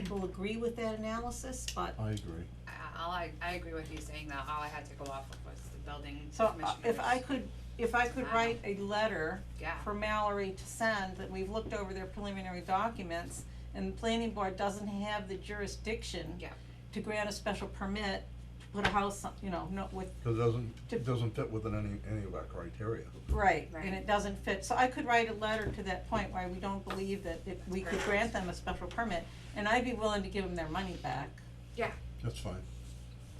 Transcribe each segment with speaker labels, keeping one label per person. Speaker 1: people agree with that analysis, but,
Speaker 2: I agree.
Speaker 3: I- All I, I agree with you saying that, all I had to go off of was the building
Speaker 1: so uh,
Speaker 3: commissioner's.
Speaker 1: if I could, if I could
Speaker 3: Wow.
Speaker 1: write a letter
Speaker 3: Yeah,
Speaker 1: for Mallory to send, that we've looked over their preliminary documents, and the planning board doesn't have the jurisdiction
Speaker 3: Yeah.
Speaker 1: to grant a special permit, to put a house, on- you know, no, with
Speaker 2: Cause it doesn't,
Speaker 1: To-
Speaker 2: it doesn't fit within any, any of our criteria.
Speaker 1: Right,
Speaker 3: Right.
Speaker 1: and it doesn't fit, so I could write a letter to that point why we don't believe that if we could
Speaker 3: Right.
Speaker 1: grant them a special permit, and I'd be willing to give them their money back.
Speaker 2: That's fine.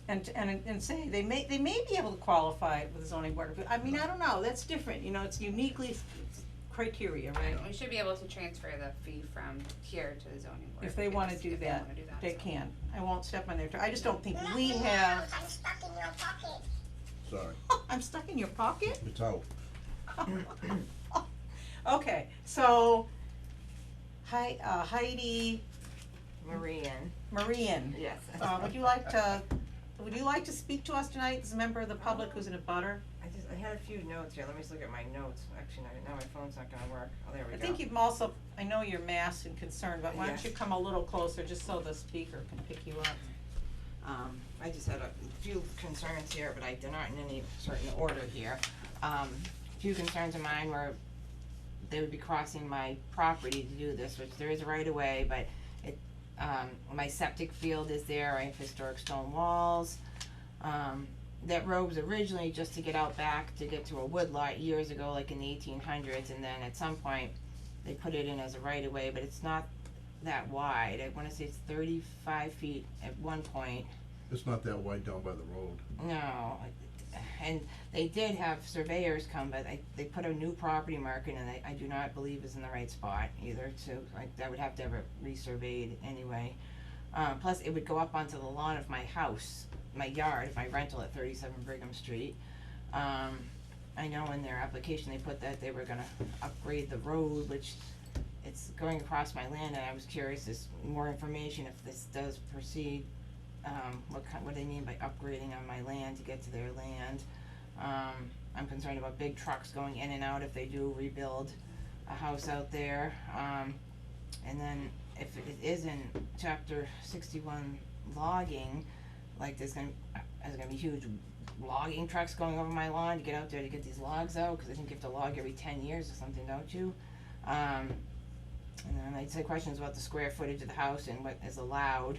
Speaker 1: And, and, and say, they may, they may be able to qualify with the zoning board, of- I mean, I don't know, that's different, you know, it's uniquely s- s- criteria, right?
Speaker 3: we should be able to transfer the fee from here to the zoning board.
Speaker 1: If they wanna
Speaker 3: because
Speaker 1: do
Speaker 3: if they
Speaker 1: that,
Speaker 3: wanna do
Speaker 1: They
Speaker 3: so.
Speaker 1: can, I won't step on their, toe. I just don't think we have,
Speaker 4: I'm stuck in your pocket.
Speaker 2: Sorry,
Speaker 1: I'm stuck in your pocket?
Speaker 2: it's out.
Speaker 1: Okay, so, Hi, uh, Heidi
Speaker 5: Marian,
Speaker 1: Marian,
Speaker 5: yes.
Speaker 1: Uh, would you like to, would you like to speak to us tonight as a member of the public who's in a butter?
Speaker 5: I just, I had a few notes here, let me just look at my notes, actually, now, now my phone's not gonna work, oh, there we
Speaker 1: I
Speaker 5: go.
Speaker 1: think you've also, I know you're masked and concerned, but why don't you
Speaker 5: Yes.
Speaker 1: come a little closer, just so the speaker can pick you up?
Speaker 5: Um, I just had a few concerns here, but I, they're not in any certain order here. Um, few concerns of mine were they would be crossing my property to do this, which there is a right of way, but it, um, my septic field is there, I have historic stone walls. Um, that road was originally just to get out back to get to a wood lot years ago, like in the eighteen hundreds, and then at some point, they put it in as a right of way, but it's not that wide, I wanna say it's thirty-five feet at one point,
Speaker 2: It's not that wide down by the road.
Speaker 5: no, and they did have surveyors come, but I, they put a new property market and I, I do not believe is in the right spot either, so I, that would have to have it resurveyed anyway. Uh, plus it would go up onto the lawn of my house, my yard, if I rental at thirty-seven Brigham Street. Um, I know in their application, they put that they were gonna upgrade the road, which it's going across my land and I was curious, is more information if this does proceed um, what kind, what do they mean by upgrading on my land to get to their land. Um, I'm concerned about big trucks going in and out if they do rebuild a house out there. Um, and then if it is in chapter sixty-one logging, like there's gonna, uh, there's gonna be huge logging trucks going over my lawn to get out there to get these logs out, cause I think you have to log every ten years or something, don't you? Um, and then I'd say questions about the square footage of the house and what is allowed,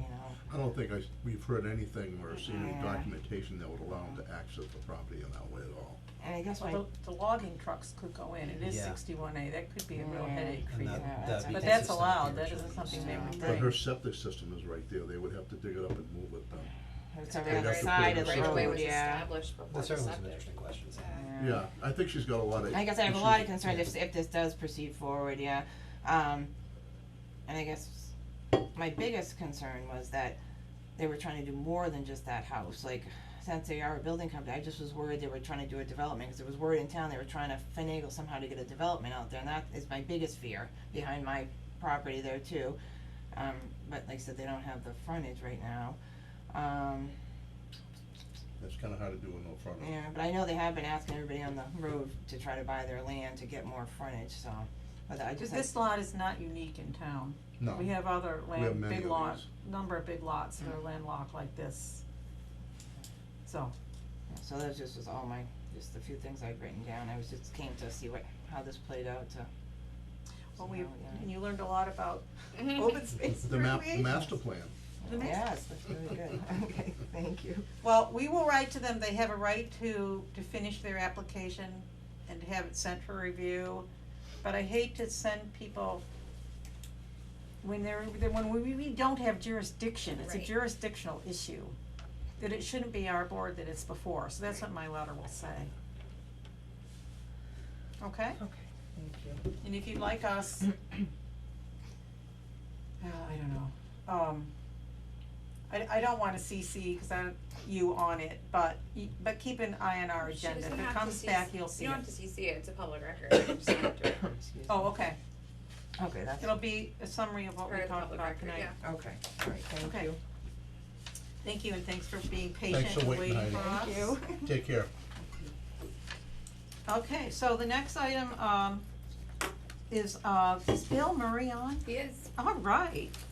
Speaker 5: you know.
Speaker 2: I don't think I, s- we've heard anything or seen any
Speaker 5: Yeah.
Speaker 2: documentation that would allow them to access the property in that way at all.
Speaker 5: And I guess my,
Speaker 1: Well, the, the logging trucks could go in, it is
Speaker 6: Yeah.
Speaker 1: sixty-one A, that could be a real
Speaker 5: Yeah.
Speaker 1: headache for
Speaker 6: And
Speaker 1: you.
Speaker 6: that,
Speaker 5: Yeah,
Speaker 6: that'd be
Speaker 1: But that's
Speaker 6: consistent with
Speaker 1: allowed,
Speaker 6: the
Speaker 1: that
Speaker 6: original
Speaker 1: isn't something
Speaker 6: use.
Speaker 1: they
Speaker 5: Yeah.
Speaker 1: would
Speaker 2: But her
Speaker 1: think.
Speaker 2: septic system is right there, they would have to dig it up and move it then.
Speaker 5: it's oh, over
Speaker 2: They'd
Speaker 5: the
Speaker 2: have
Speaker 3: Right
Speaker 5: other
Speaker 2: to
Speaker 5: side
Speaker 2: put
Speaker 5: of
Speaker 2: it
Speaker 5: the
Speaker 2: in
Speaker 3: Right away
Speaker 5: road,
Speaker 3: was
Speaker 5: yeah.
Speaker 3: established before
Speaker 6: That
Speaker 3: the
Speaker 6: certainly was an
Speaker 3: septic.
Speaker 6: interesting question, so.
Speaker 2: Yeah, I think she's got a lot of.
Speaker 5: I guess I have a
Speaker 2: issues
Speaker 5: lot of
Speaker 2: with-
Speaker 5: concerns if, if this does proceed forward, yeah. Um, and I guess my biggest concern was that they were trying to do more than just that house, like, since they are a building company, I just was worried they were trying to do a development, cause there was word in town they were trying to finagle somehow to get a development out there, and that is my biggest fear behind my property there too. Um, but like I said, they don't have the frontage right now. Um,
Speaker 2: That's kinda hard to do in no front of.
Speaker 5: Yeah, but I know they have been asking everybody on the road to try to buy their land to get more frontage, so, but I just,
Speaker 1: This lot is not unique in town,
Speaker 2: No,
Speaker 1: we have other
Speaker 2: we have
Speaker 1: land,
Speaker 2: many
Speaker 1: big
Speaker 2: of
Speaker 1: lots,
Speaker 2: these.
Speaker 1: number of big lots that are landlocked like this. So,
Speaker 5: so that just was all my, just the few things I'd written down, I was just came to see what, how this played out to.
Speaker 1: well,
Speaker 5: see
Speaker 1: we,
Speaker 5: how it went.
Speaker 1: and you learned a lot about open space
Speaker 2: The map, the
Speaker 1: recreation.
Speaker 2: master plan.
Speaker 1: The next-
Speaker 5: Yes, that's really good, okay, thank you.
Speaker 1: Well, we will write to them, they have a right to, to finish their application and to have it sent for review. But I hate to send people, when they're, then when we, we don't have jurisdiction, it's a
Speaker 3: Right.
Speaker 1: jurisdictional issue. That it shouldn't be our board that it's before, so that's what my letter will say. Okay?
Speaker 5: Okay, thank you.
Speaker 1: And if you'd like us, Uh, I don't know, um, I, I don't wanna CC, cause I, don't- you on it, but, y- but keep an eye on our
Speaker 3: She
Speaker 1: agenda, if
Speaker 3: doesn't
Speaker 1: it
Speaker 3: have to
Speaker 1: comes
Speaker 3: CC
Speaker 1: back, you'll see it.
Speaker 3: You don't have to CC it, it's a public record, you just have to do it.
Speaker 5: Excuse me.
Speaker 1: Oh, okay,
Speaker 5: Okay, that's,
Speaker 1: it'll be a summary of what we
Speaker 3: Part of the
Speaker 1: talked
Speaker 3: public
Speaker 1: about
Speaker 3: record,
Speaker 1: tonight.
Speaker 3: yeah.
Speaker 5: okay, alright,
Speaker 1: Okay.
Speaker 5: thank you.
Speaker 1: Thank you, and thanks for being patient
Speaker 2: for
Speaker 1: and
Speaker 2: waiting,
Speaker 1: waiting
Speaker 2: Heidi.
Speaker 1: for us.
Speaker 5: Thank you.
Speaker 2: Take care.
Speaker 1: Okay, so the next item, um, is, uh, is Bill Murray on?
Speaker 3: He is,
Speaker 1: All right,